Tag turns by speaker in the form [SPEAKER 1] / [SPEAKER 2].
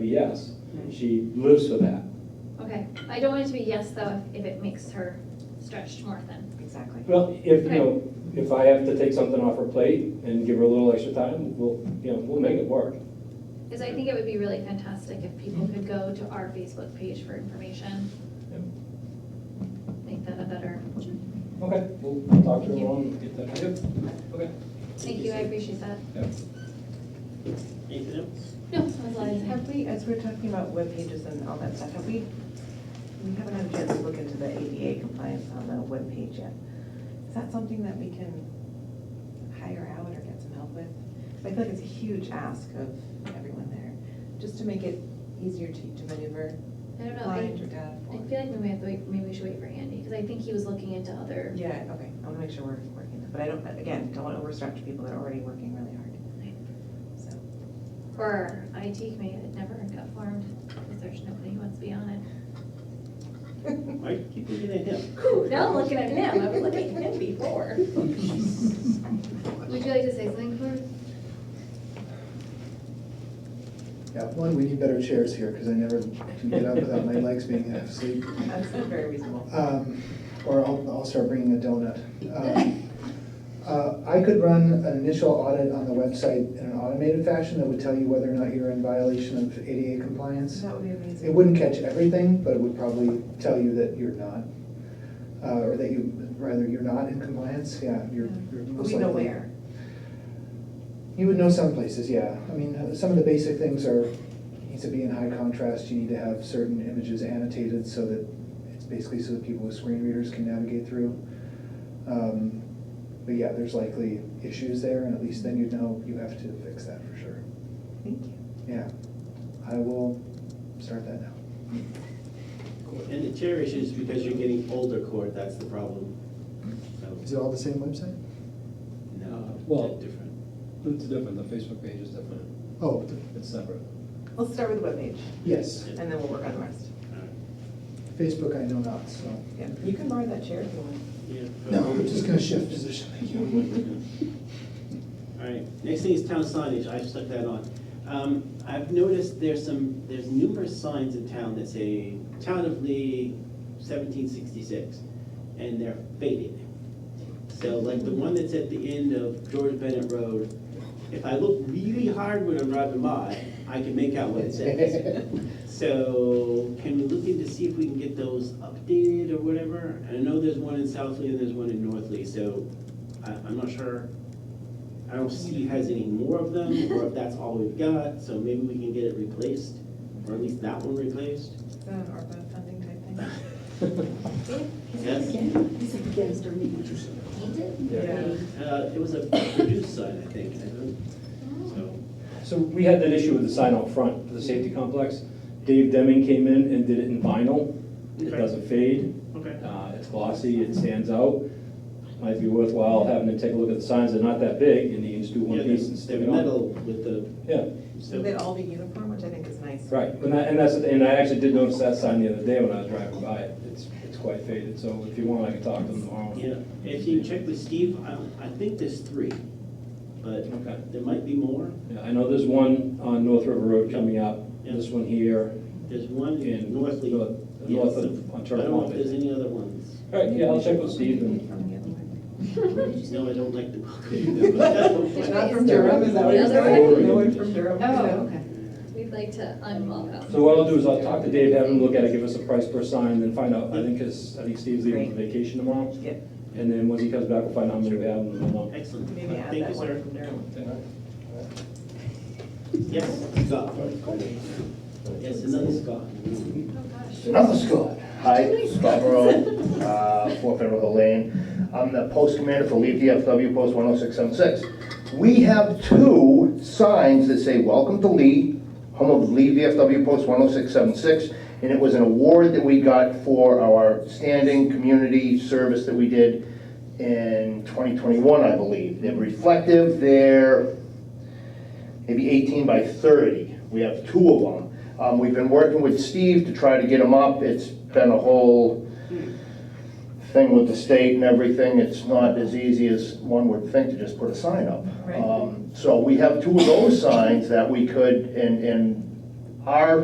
[SPEAKER 1] yes, she lives for that.
[SPEAKER 2] Okay, I don't want it to be yes, though, if if it makes her stretched more thin.
[SPEAKER 3] Exactly.
[SPEAKER 1] Well, if, you know, if I have to take something off her plate and give her a little extra time, we'll, you know, we'll make it work.
[SPEAKER 2] Because I think it would be really fantastic if people could go to our Facebook page for information. Make that a better,
[SPEAKER 1] Okay, we'll talk to her tomorrow and get that. Yep. Okay.
[SPEAKER 2] thank you, I appreciate that.
[SPEAKER 4] Anything else?
[SPEAKER 2] No, someone's lying.
[SPEAKER 3] Have we, as we're talking about web pages and all that stuff, have we, we haven't had a chance to look into the ADA compliance on the web page yet. Is that something that we can hire out or get some help with? 'Cause I feel like it's a huge ask of everyone there, just to make it easier to to maneuver,
[SPEAKER 2] I don't know,
[SPEAKER 3] blind
[SPEAKER 2] I,
[SPEAKER 3] or deaf
[SPEAKER 2] I
[SPEAKER 3] or.
[SPEAKER 2] feel like maybe we have to wait, maybe we should wait for Andy, because I think he was looking into other,
[SPEAKER 3] Yeah, okay, I want to make sure we're working that, but I don't, again, don't want to overstretch people that are already working really hard. So,
[SPEAKER 2] or our IT committee that never got formed, because there's nobody who wants to be on it.
[SPEAKER 4] Why do you keep looking at him?
[SPEAKER 2] Now I'm looking at him, I was looking at him before. Would you like to say something, Claire?
[SPEAKER 5] Yeah, one, we need better chairs here, because I never can get up without my legs being half asleep.
[SPEAKER 3] that's very reasonable.
[SPEAKER 5] Um, Or I'll, I'll start bringing a donut. Um, uh, I could run an initial audit on the website in an automated fashion that would tell you whether or not you're in violation of ADA compliance.
[SPEAKER 3] That would be amazing.
[SPEAKER 5] It wouldn't catch everything, but it would probably tell you that you're not, uh, or that you, rather, you're not in compliance, yeah, you're, you're most
[SPEAKER 3] We
[SPEAKER 5] likely.
[SPEAKER 3] know where.
[SPEAKER 5] You would know some places, yeah. I mean, uh, some of the basic things are, needs to be in high contrast, you need to have certain images annotated so that, it's basically so that people with screen readers can navigate through. Um, But yeah, there's likely issues there, and at least then you'd know you have to fix that for sure.
[SPEAKER 3] Thank you.
[SPEAKER 5] Yeah, I will start that now.
[SPEAKER 4] And the chair issue is because you're getting older, Court, that's the problem.
[SPEAKER 5] Is
[SPEAKER 4] So,
[SPEAKER 5] it all the same website?
[SPEAKER 4] no,
[SPEAKER 6] Well-
[SPEAKER 4] different.
[SPEAKER 6] It's different, the Facebook page is different,
[SPEAKER 5] Oh,
[SPEAKER 6] it's separate.
[SPEAKER 3] Let's start with the webpage,
[SPEAKER 5] yes,
[SPEAKER 3] and then we'll work on the rest.
[SPEAKER 4] All right.
[SPEAKER 5] Facebook I know not, so.
[SPEAKER 3] Yeah, you can borrow that chair if you want.
[SPEAKER 4] Yeah. um,
[SPEAKER 5] No, I'm just gonna shift position, thank you.
[SPEAKER 4] All right, next thing is town signage, I stuck that on. Um, I've noticed there's some, there's numerous signs in town that say, Town of Lee seventeen sixty-six, and they're faded. So like the one that's at the end of George Bennett Road, if I look really hard when I'm driving by, I can make out what it says. So can we look into see if we can get those updated or whatever? And I know there's one in South Lee and there's one in North Lee, so I, I'm not sure. I don't see has any more of them, or if that's all we've got, so maybe we can get it replaced, or at least that one replaced.
[SPEAKER 3] Is that an ARPA funding type thing?
[SPEAKER 4] Yes? Uh, it was a reduced sign, I think, I don't, so,
[SPEAKER 1] So we had that issue with the sign out front for the safety complex. Dave Deming came in and did it in vinyl. It
[SPEAKER 4] Okay.
[SPEAKER 1] doesn't fade,
[SPEAKER 4] okay.
[SPEAKER 1] uh, it's glossy, it stands out. Might be worthwhile having to take a look at the signs, they're not that big, and you can just do one
[SPEAKER 4] Yeah,
[SPEAKER 1] piece and
[SPEAKER 4] the-
[SPEAKER 1] stick
[SPEAKER 4] the
[SPEAKER 1] it on.
[SPEAKER 4] metal with the,
[SPEAKER 1] Yeah,
[SPEAKER 3] So
[SPEAKER 4] so,
[SPEAKER 3] they'd all be uniform, which I think is nice.
[SPEAKER 1] right, and I, and that's, the- and I actually did notice that sign the other day when I was driving by it, it's, it's quite faded, so if you want, I can talk to them tomorrow.
[SPEAKER 4] yeah, if you check with Steve, I, I think there's three, but
[SPEAKER 1] Okay.
[SPEAKER 4] there might be more.
[SPEAKER 1] Yeah, I know there's one on North River Road coming up, this one here,
[SPEAKER 4] There's one in
[SPEAKER 1] in north,
[SPEAKER 4] North Lee.
[SPEAKER 1] north of, on
[SPEAKER 4] I don't
[SPEAKER 1] Turtle
[SPEAKER 4] know if
[SPEAKER 1] Pond.
[SPEAKER 4] there's any other ones.
[SPEAKER 1] All right, yeah, I'll check with Steve and
[SPEAKER 3] From the other one.
[SPEAKER 4] No, I don't like the
[SPEAKER 3] They're
[SPEAKER 4] book.
[SPEAKER 3] not from Durham, is that what you're
[SPEAKER 2] The other
[SPEAKER 3] saying?
[SPEAKER 1] one?
[SPEAKER 3] No one from Durham.
[SPEAKER 2] Oh,
[SPEAKER 3] no.
[SPEAKER 2] okay. We'd like to unwelcome.
[SPEAKER 1] So what I'll do is I'll talk to Dave, have him look at it, give us a price per sign, then find out, I think, because I think Steve's leaving for vacation tomorrow.
[SPEAKER 3] Yeah,
[SPEAKER 1] And then once he comes back, we'll find out how many we have and then I'll-
[SPEAKER 4] Excellent.
[SPEAKER 3] maybe add
[SPEAKER 4] Thank you,
[SPEAKER 3] that one
[SPEAKER 4] sir.
[SPEAKER 3] from Durham.
[SPEAKER 4] Yes, Scott. Yes, another Scott.
[SPEAKER 2] Oh, gosh.
[SPEAKER 7] Another Scott. Hi, Scott Morrow, uh, Four Federal Hill Lane. I'm the post commander for Leaf DFW Post 10676. We have two signs that say, "Welcome to Lee," home of Lee DFW Post 10676. And it was an award that we got for our standing community service that we did in 2021, I believe. They're reflective, they're maybe 18 by 30. We have two of them. Um, We've been working with Steve to try to get them up. It's been a whole thing with the state and everything. It's not as easy as one would think to just put a sign up.
[SPEAKER 3] Right.
[SPEAKER 7] Um, So we have two of those signs that we could, and, and Our